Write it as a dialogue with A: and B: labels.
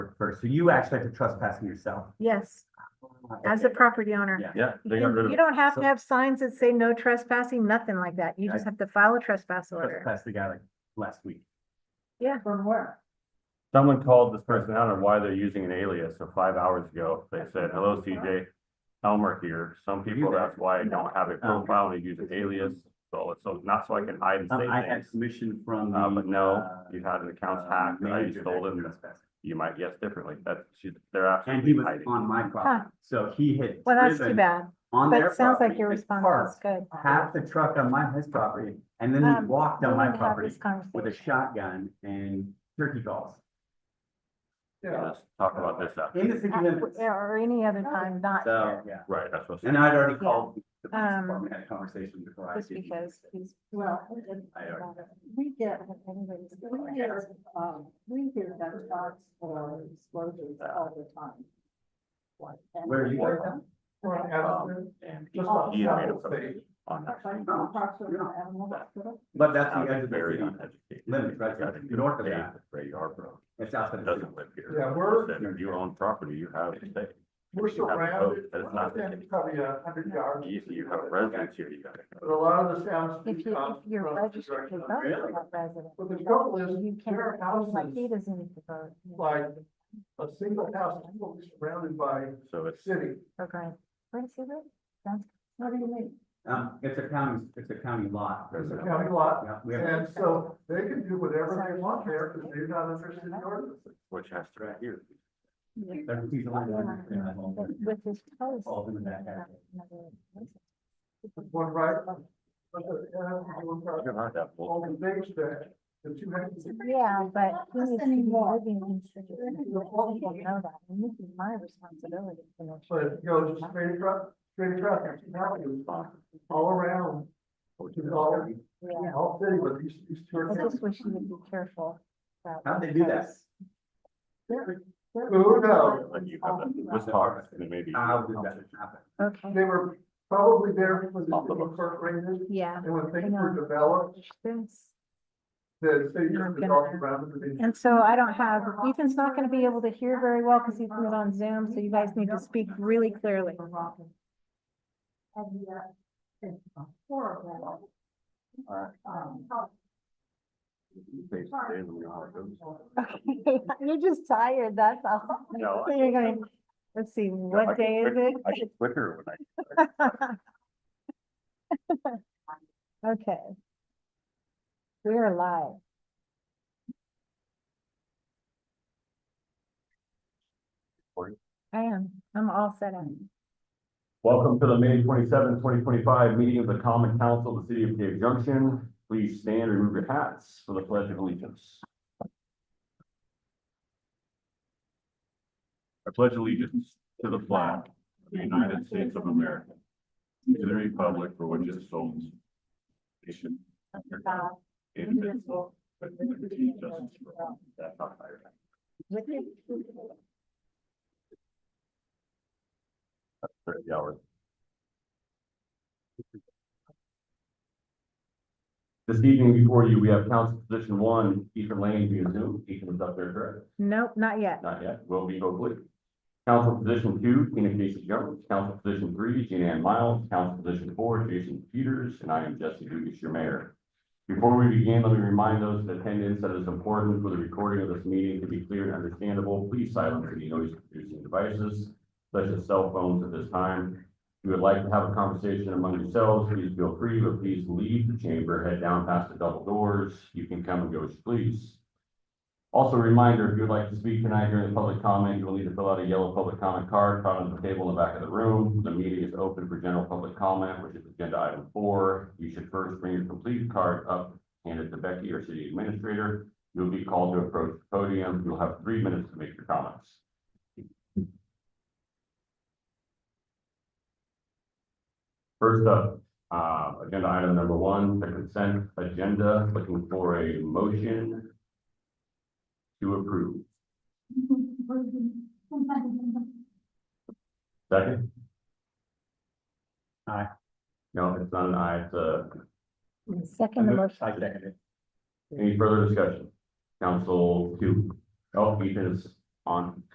A: first, so you actually have to trespass in yourself.
B: Yes, as a property owner.
A: Yeah.
C: Yeah,
B: You
C: they got rid
B: can-
C: of
B: you
C: it.
B: don't have
A: So-
B: to have signs that say no trespassing, nothing like that. You just have to file a trespass order.
A: Trespassed the guy like last week.
B: Yeah. From where?
C: Someone called this person out on why they're using an alias, so five hours ago, they said, hello CJ. Elmer here, some
A: you
C: people,
A: there?
C: that's why I don't have a profile, they use an alias, so it's, so not so I can hide and
A: Um, I
C: say
A: had
C: things.
A: permission from.
C: Uh, but
A: the,
C: no,
A: uh,
C: you had an account
A: uh,
C: hacked, I
A: manager
C: stole
A: that
C: it, and
A: trespassed.
C: you might guess differently, that, she's, they're
A: And he
C: absolutely
A: was
C: hiding.
A: on my property, so he had.
B: Well, that's too
A: driven
B: bad,
A: On
B: but
A: their
B: it sounds like
A: property
B: your
A: and
B: response was
A: parked
B: good.
A: Half the truck on my, his property, and then he
B: Um,
A: walked on
B: We
A: my
B: need to have
A: property
B: this
A: with a
B: conversation.
A: shotgun and turkey calls.
C: Let's talk about this after,
A: In the city
B: Uh,
A: limits,
B: Or any other time, not
A: so,
B: here,
A: yeah,
C: right, that's what.
A: and I'd already
B: Yeah.
A: called the police
B: Um,
A: department, had a conversation before I.
B: just
A: did.
B: because he's.
D: Well,
A: I already-
D: we get, we hear, um, we hear gunshots or explosions all the time. Like, and-
A: Where you heard them?
D: Well,
C: Um, and
B: Oh,
C: he- he had made a post on that.
D: like, across from the animal hospital.
A: But that's the edge
C: Sounds
A: of the
C: Very
A: city,
C: uneducated.
A: limits, right?
C: Got it.
A: You're north of that.
C: Ray Yarbrough
A: it's outside of the city.
C: doesn't live here.
E: Yeah, we're-
C: Said if you own property, you have to stay.
E: We're
C: You have a
E: surrounded,
C: vote, but it's not the
E: within
C: case.
E: probably a hundred yards.
C: If you have residence here, you gotta.
E: But a lot of the sounds
B: If
E: do
B: you,
E: come
B: if you're
E: from the
B: registered to
E: direction of-
B: vote, you're
A: Really?
B: a resident.
E: But the trouble
B: You
E: is, there
B: can't,
E: are
B: like, he
E: houses,
B: doesn't need to vote.
E: like a single house, people surrounded by
C: So it's,
E: city.
B: Okay, where does he live? Sounds-
D: What do you mean?
A: Um, it's a county, it's a county lot.
E: It's a county lot.
A: Yeah, we have,
E: And so they can do whatever they want there because they're not under city ordinances.
C: which has to.
A: right here.
B: Yeah.
A: There's a piece of land right there, I've
B: But
A: owned it.
B: With his post.
A: All in the back.
E: One right. But the, uh, one
C: I
E: right,
C: can hide that
E: All
C: bull-
E: the things that, the two hundred.
B: Yeah, but he
D: Us
B: needs to be
D: anymore.
B: living in. Citrus.
D: We're not
B: He
D: your
B: doesn't
D: fault.
B: know that, and this is my responsibility. to make
E: But
B: sure
E: it goes straight across, straight across, and two houses all around, which is all,
B: Yeah,
E: all city, but these, these two
B: I
E: are.
B: just wish you would be careful. about-
A: How'd they do that?
B: because-
E: Who knows? Um,
C: Let you have that, this part, and maybe.
A: How did that happen?
B: Okay,
E: They were probably there when the
C: Off the
E: city
C: books.
E: incorporated,
B: yeah.
E: and when
B: I
E: things
B: know.
E: were developed,
B: Thanks.
E: the city
B: You're gonna-
E: just developed around it. and
B: And so I don't have, Ethan's not gonna be able to hear very well because Ethan is on Zoom, so you guys need to speak really clearly.
D: And, uh, it's
E: 啊
D: a horrible.
E: 呃
C: Alright.
E: 嗯
D: Um,
C: They stay in the house.
B: Okay, you're just tired, that's all.
C: No, Oh, I-
B: So you're going, let's see,
C: I
B: what
C: get
B: day is
C: quick-
B: it?
C: I get quicker when I.
B: Okay. We are live.
C: Recording?
B: I am, I'm all set up.
C: Welcome to the May 27, 2025 meeting of the Common Council of the City of Cave Junction. Please stand and remove your hats for the pledge of allegiance. I pledge allegiance to the flag of the United States of America, and to the republic for which it stands, nation, indivisible, with liberty and justice for all. That's not fair.
B: With you.
C: Thirty hours. This evening before you, we have council position one, Ethan Lane via Zoom. Ethan is up there, correct?
B: Nope, not yet.
C: Not yet, will be hopefully. Council position two, Tina Casey Jones. Council position three, Jean Ann Miles. Council position four, Jason Peters. And I am Jesse Dugas, your mayor. Before we begin, let me remind those in attendance that it is important for the recording of this meeting to be clear and understandable. Please silence any noise producing devices such as cell phones at this time. If you would like to have a conversation among yourselves, please feel free, but please leave the chamber, head down past the double doors. You can come and go as you please. Also a reminder, if you would like to speak tonight during the public comment, you will need to fill out a yellow public comment card found on the table in the back of the room. The meeting is open for general public comment, which is agenda item four. You should first bring your completed card up, hand it to Becky or city administrator. You'll be called to approach the podium. You'll have three minutes to make your comments. First up, uh, agenda item number one, the consent agenda, looking for a motion to approve. Second?
A: Aye.
C: No, it's not an aye, it's a,
B: Second the motion.
A: I second it.
C: any further discussion? Council two. Oh, Ethan is on